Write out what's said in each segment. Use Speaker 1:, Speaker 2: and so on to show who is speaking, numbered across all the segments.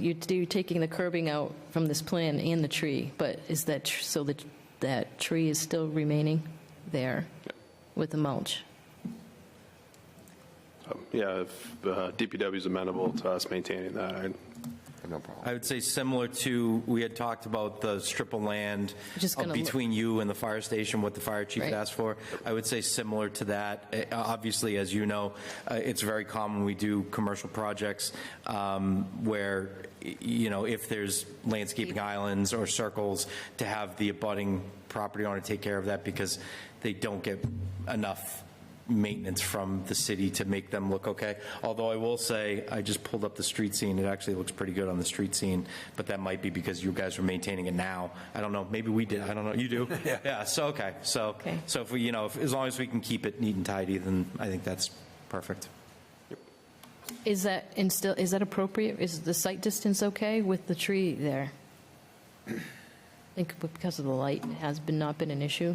Speaker 1: You're you're taking the curbing out from this plan and the tree, but is that, tr- so that, that tree is still remaining there with the mulch?
Speaker 2: Yeah, if uh, DPW is amenable to us maintaining that, I
Speaker 3: No problem.
Speaker 4: I would say similar to, we had talked about the strip of land
Speaker 1: Which is gonna look-
Speaker 4: between you and the fire station, what the fire chief had
Speaker 1: Right.
Speaker 4: asked for. I would say similar to that. Uh, Obviously, as you know, uh, it's very common, we do commercial projects um, where, y- you know, if there's landscaping islands or circles, to have the abutting property owner take care of that because they don't get enough maintenance from the city to make them look okay. Although I will say, I just pulled up the street scene, it actually looks pretty good on the street scene, but that might be because you guys are maintaining it now. I don't know, maybe we did, I don't know, you do? Yeah. Yeah, so, okay, so,
Speaker 1: Okay.
Speaker 4: so if we, you know, if- as long as we can keep it neat and tidy, then I think that's perfect.
Speaker 1: Is that, and still, is that appropriate? Is the sight distance okay with the tree there? I think because of the light, it has been, not been an issue.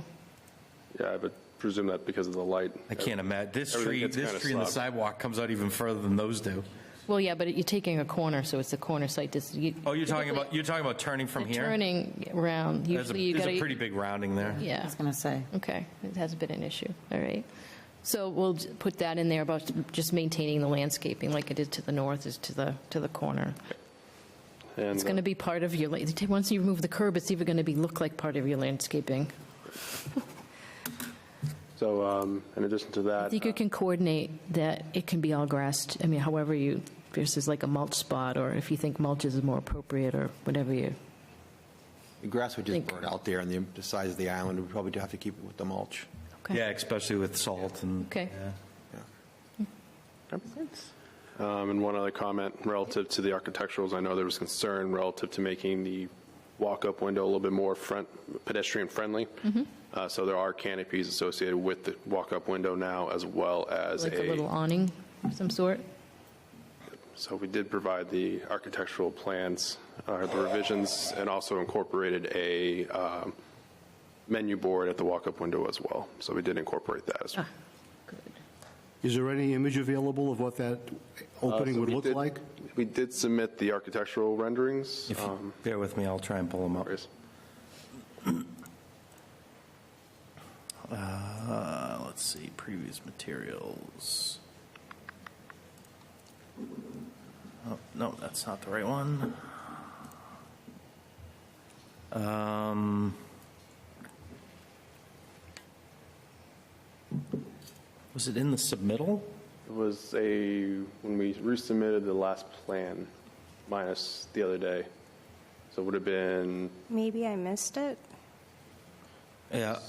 Speaker 2: yeah, I would presume that because of the light.
Speaker 4: I can't imagine, this
Speaker 2: Everything
Speaker 4: tree,
Speaker 2: gets
Speaker 4: this
Speaker 2: kinda
Speaker 4: tree and the
Speaker 2: slobbed.
Speaker 4: sidewalk comes out even further than those do.
Speaker 1: Well, yeah, but you're taking a corner, so it's the corner sight distance.
Speaker 4: Oh, you're talking about, you're talking about turning from here?
Speaker 1: Turning around,
Speaker 4: There's a,
Speaker 1: usually you
Speaker 4: there's
Speaker 1: gotta.
Speaker 4: a pretty big rounding there.
Speaker 1: Yeah.
Speaker 5: I was going to say.
Speaker 1: Okay, it has been an issue, all right. So we'll j- put that in there about just maintaining the landscaping like it is to the north, is to the, to the corner. It's going to be part of your, la- once you remove the curb, it's even going to be, look like part of your landscaping.
Speaker 2: So um, in addition to
Speaker 1: I
Speaker 2: that,
Speaker 1: think you can coordinate that it can be all grassed, I mean, however you, versus like a mulch spot, or if you think mulch is more appropriate, or whatever you,
Speaker 3: The grass would just
Speaker 1: Think.
Speaker 3: burn out there, and the- the size of the island, we probably do have to keep it with the mulch.
Speaker 1: okay?
Speaker 4: Yeah, especially with salt and.
Speaker 1: Okay.
Speaker 4: yeah.
Speaker 2: um, and one other comment relative to the architecturals, I know there was concern relative to making the walk-up window a little bit more front, pedestrian-friendly.
Speaker 1: Mm-hmm.
Speaker 2: Uh, So there are canopies associated with the walk-up window now, as well as
Speaker 1: Like a little
Speaker 2: a,
Speaker 1: awning of some sort?
Speaker 2: so we did provide the architectural plans, or the revisions, and also incorporated a um, menu board at the walk-up window as well. So we did incorporate that as well.
Speaker 6: Is there any image available of what that
Speaker 2: Uh,
Speaker 6: opening
Speaker 2: So
Speaker 6: would
Speaker 2: we
Speaker 6: look
Speaker 2: did-
Speaker 6: like?
Speaker 2: We did submit the architectural renderings.
Speaker 4: If you
Speaker 2: um,
Speaker 4: bear with me, I'll try and pull them up.
Speaker 2: Chris.
Speaker 4: Uh, let's see, previous materials. Oh, no, that's not the right one. Um, was it in the submittal?
Speaker 2: It was a, when we resubmitted the last plan minus the other day, so it would have been,
Speaker 7: Maybe I missed it.
Speaker 4: Yeah.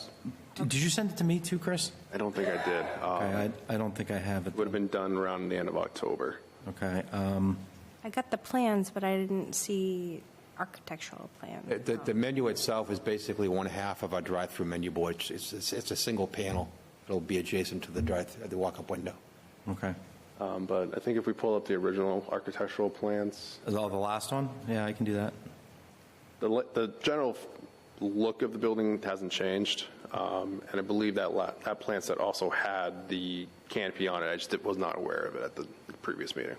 Speaker 4: Did you send it to me too, Chris?
Speaker 2: I don't think I did. Um,
Speaker 4: Okay, I, I don't think I have it.
Speaker 2: Would have been done around the end of October.
Speaker 4: Okay, um,
Speaker 7: I got the plans, but I didn't see architectural
Speaker 3: Uh,
Speaker 7: plans.
Speaker 3: The the menu itself is basically one half of our drive-through menu board. It's- It's it's- it's a single panel. It'll be adjacent to the drive, the walk-up window.
Speaker 4: okay.
Speaker 2: Um, But I think if we pull up the original architectural plans,
Speaker 4: Is all the last one? Yeah, I can do that.
Speaker 2: the, li- the general f- look of the building hasn't changed. Um, And I believe that la, that plan set also had the canopy on it. I just did- was not aware of it at the previous meeting.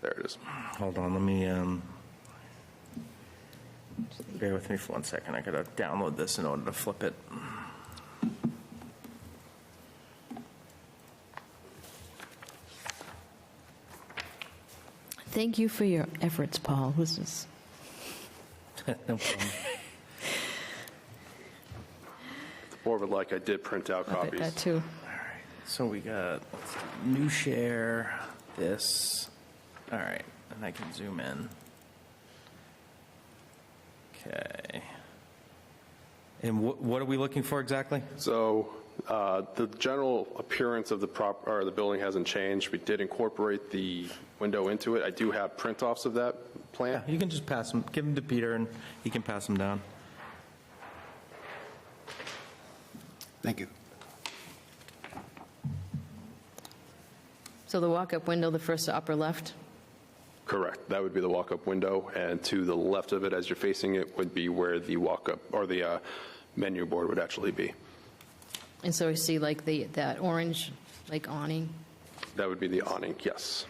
Speaker 2: There it is.
Speaker 4: Hold on, let me, um, bear with me for one second. I gotta download this in order to flip it.
Speaker 1: Thank you for your efforts, Paul. This is,
Speaker 4: No problem.
Speaker 2: Or would like, I did print out
Speaker 1: I bet
Speaker 2: copies.
Speaker 1: that too.
Speaker 4: So we got let's do new share, this, all right, and I can zoom in. Okay. And what, what are we looking for exactly?
Speaker 2: So uh, the general appearance of the prop, or the building hasn't changed. We did incorporate the window into it. I do have print-offs of that plan.
Speaker 4: You can just pass them, give them to Peter and he can pass them down.
Speaker 6: Thank you.
Speaker 1: So the walk-up window, the first upper left?
Speaker 2: Correct. That would be the walk-up window, and to the left of it, as you're facing it, would be where the walk-up, or the uh, menu board would actually be.
Speaker 1: And so you see like the, that orange, like awning?
Speaker 2: That would be the awning, yes.